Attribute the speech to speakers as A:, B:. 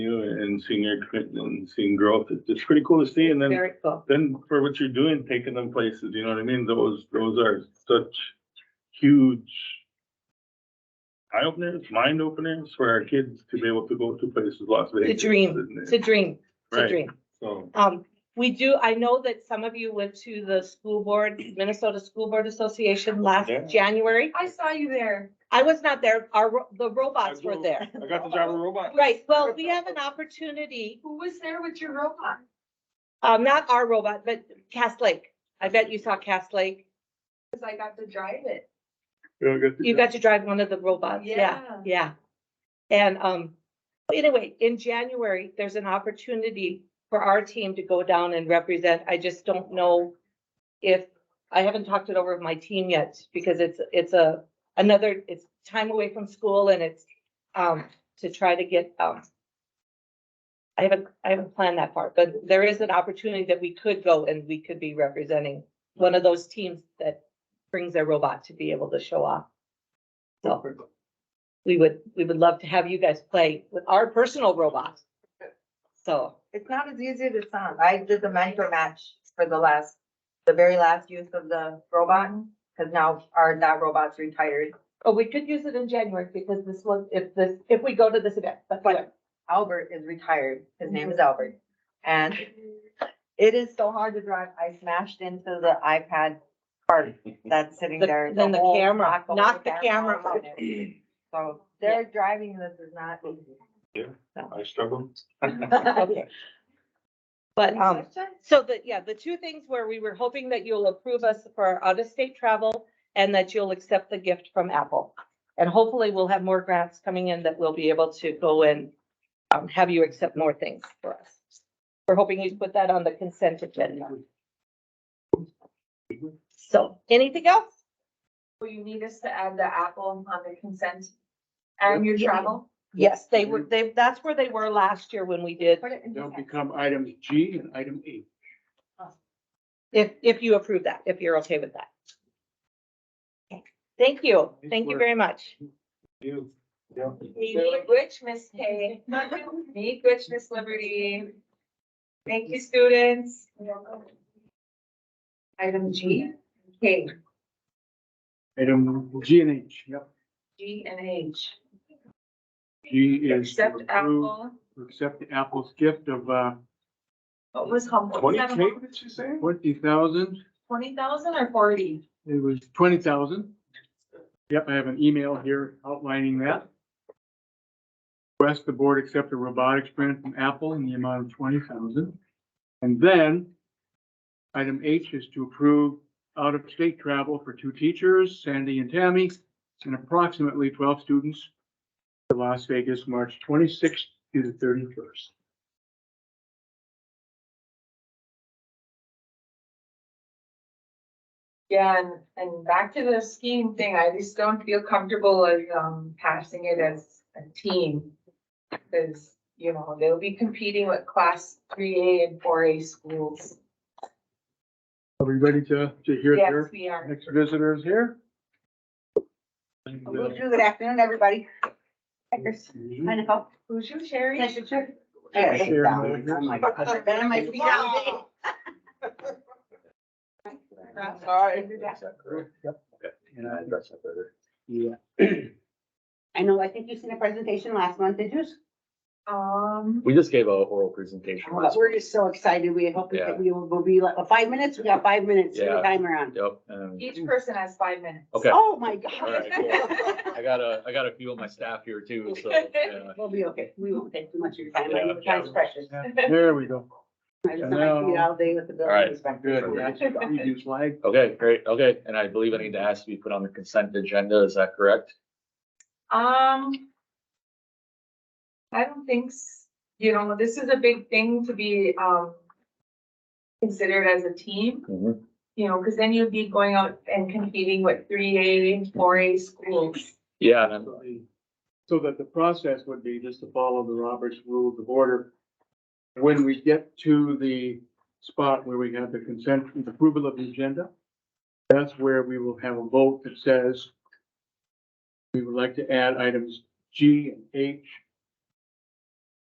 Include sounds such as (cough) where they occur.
A: and seeing your commitment and seeing growth. It- It's pretty cool to see. And then,
B: Very cool.
A: then for what you're doing, taking them places, you know what I mean? Those, those are such huge eye openers, mind openers for our kids to be able to go to places, Las Vegas.
B: dream.
A: isn't it?
B: It's a dream, it's a
A: Right.
B: dream.
A: So,
B: Um, we do, I know that some of you went to the school board, Minnesota School Board Association last
A: Yeah.
B: January.
C: I saw you there.
B: I was not there, our, ro- the robots were
C: (laughs)
B: there.
A: I got to drive a robot.
B: Right, well, we have an opportunity,
C: Who was there with your robot?
B: um, not our robot, but Cass Lake. I bet you saw Cass Lake.
C: Cause I got to drive it.
A: Yeah, I got to
B: You
A: drive.
B: got to drive one of the robots, yeah,
C: Yeah.
B: yeah. And, um, anyway, in January, there's an opportunity for our team to go down and represent. I just don't know if, I haven't talked it over with my team yet, because it's, it's a, another, it's time away from school and it's, um, to try to get, um, I haven't, I haven't planned that part, but there is an opportunity that we could go and we could be representing one of those teams that brings their robot to be able to show off. So we would, we would love to have you guys play with our personal robot. So,
D: It's not as easy as it sounds. I did the mentor match for the last, the very last use of the robot,
B: Mm-hmm.
D: because now our, that robot's retired.
B: oh, we could use it in January because this was, if this, if we go to this event, but
D: But Albert is retired. His name is Albert. And it is so hard to drive. I smashed into the iPad cart that's sitting
B: The-
D: there.
B: then the
D: whole
B: camera,
D: back of
B: knocked the camera
D: was on it. So their driving this is not
B: (laughs)
D: easy.
A: I struggle.
B: (laughs) Okay. But,
C: Any
B: um,
C: questions?
B: so the, yeah, the two things where we were hoping that you'll approve us for our out-of-state travel and that you'll accept the gift from Apple. And hopefully we'll have more grants coming in that we'll be able to go and um, have you accept more things for us. We're hoping you put that on the consent agenda. So anything else?
C: Will you need us to add the Apple on the consent and your travel?
B: Yes, they were, they, that's where they were last year when we did,
D: Put it in
E: They'll
D: the-
E: become items G and item E.
B: if, if you approve that, if you're okay with that. Thank you. Thank you very much.
A: You.
C: Meet which Miss K, meet which Miss Liberty. Thank you, students. Item G, K,
E: Item G and H, yep.
C: G and H.
E: G is to
C: Except
E: approve,
C: Apple,
E: to accept Apple's gift of, uh,
C: what was humble?
A: Twenty K, did she say?
E: twenty thousand.
C: Twenty thousand or forty?
E: It was twenty thousand. Yep, I have an email here outlining that. Request the board accept a robotics grant from Apple in the amount of twenty thousand. And then item H is to approve out-of-state travel for two teachers, Sandy and Tammy, and approximately twelve students to Las Vegas, March twenty-sixth to the thirty-first.
C: Yeah, and, and back to the skiing thing, I just don't feel comfortable as, um, passing it as a team. Cause, you know, they'll be competing with class three A and four A schools.
E: Are we ready to, to hear
C: Yes,
E: their
C: we are.
E: next visitors here?
D: Good afternoon, everybody. Checkers.
F: Mm-hmm.
D: Hi, Nicole.
C: Who's your Sherry?
D: Nice to check.
E: Yeah,
D: Hey,
E: share
D: down.
E: my-
D: Oh my God, I've been on my feet all day.
C: Sorry.
E: And I address that better. Yeah.
D: I know, I think you seen a presentation last month, did you?
C: Um,
F: We just gave a oral presentation
D: Oh,
F: last
D: We're
F: week.
D: just so excited. We hope
F: Yeah.
D: that we will we'll be like, well, five minutes, we got five minutes,
F: Yeah.
D: the timer on.
F: Yep, and
C: each person has five minutes.
F: Okay.
D: Oh, my
F: All
D: God.
F: right, I got a, I got a few of my staff here too, so. yeah.
D: We'll be okay. We won't take too much of your time.
F: Yeah,
D: Your time's
F: yeah.
D: precious.
E: There we go.
D: I just want to be all day with the
F: All right.
D: building inspector.
E: Good. Preview slide.
F: Okay, great, okay, and I believe I need to ask to be put on the consent agenda, is that correct?
C: (laughs) Um. I don't think, s- you know, this is a big thing to be, um. Considered as a team.
F: Mhm.
C: You know, because then you'd be going out and competing with three A and four A schools.
F: Yeah, and I'm-
E: So that the process would be just to follow the Roberts Rules of Order. When we get to the spot where we have the consent, the approval of the agenda, that's where we will have a vote that says we would like to add items G and H